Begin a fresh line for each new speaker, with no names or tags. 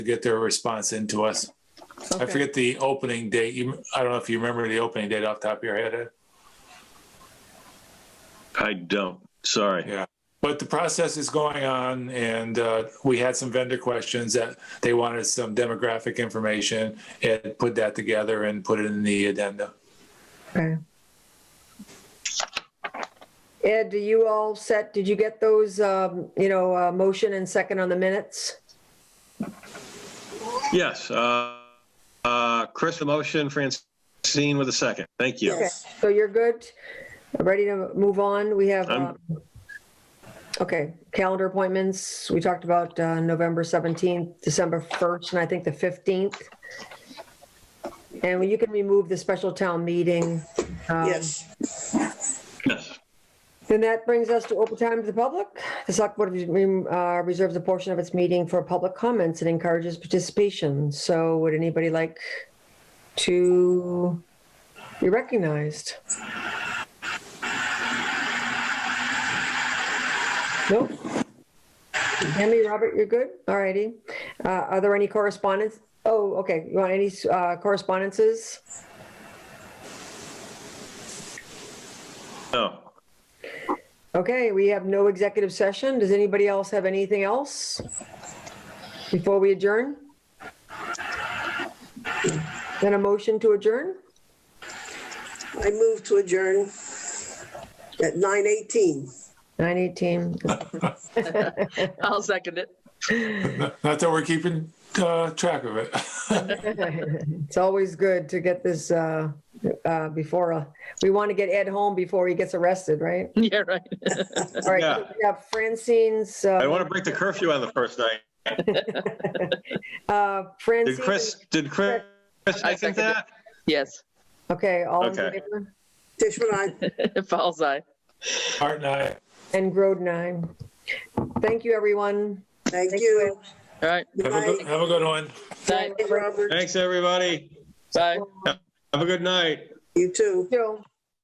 to get their response into us. I
Okay.
forget the opening date. You, I don't know if you remember the opening date off the top of your head, Ed.
I don't. Sorry.
Yeah. But the process is going on, and uh, we had some vendor questions that they wanted some demographic information and put that together and put it in the addenda.
Okay. Ed, do you all set, did you get those, um, you know, uh, motion and second on the minutes?
Yes. uh, uh, Chris, the motion, Francine with a second. Thank you.
Okay, So you're good? Ready to move on? We have,
I'm-
um, okay, calendar appointments. We talked about uh, November 17th, December 1st, and I think the 15th. And you can remove the special town meeting. um,
Yes,
Yes.
Then that brings us to open time to the public. The select board uh, reserves a portion of its meeting for public comments and encourages participation. So would anybody like to be recognized? Nope. Tammy, Robert, you're good? All righty. Uh, Are there any correspondence? Oh, okay. You want any uh, correspondences?
No.
Okay, we have no executive session. Does anybody else have anything else before we adjourn? Then a motion to adjourn?
I move to adjourn at 9:18.
918.
I'll second it.
Not that we're keeping uh, track of it.
It's always good to get this uh, uh, before, uh, we want to get Ed home before he gets arrested, right?
Yeah, right.
All right, so we have Francine's,
I
uh,
want to break the curfew on the first night.
uh,
Did
Francine's.
Chris, did Chris
I
second
seconded
that?
Yes,
Okay, all in
Okay.
favor?
Tishman, I
Fall's eye.
Art and I.
And Groden, aye. Thank you, everyone.
thank you.
All right.
Have a good,
Good
have a good one.
Night.
night, Robert.
Thanks, everybody.
Bye.
Have a good night.
You too.
Joe.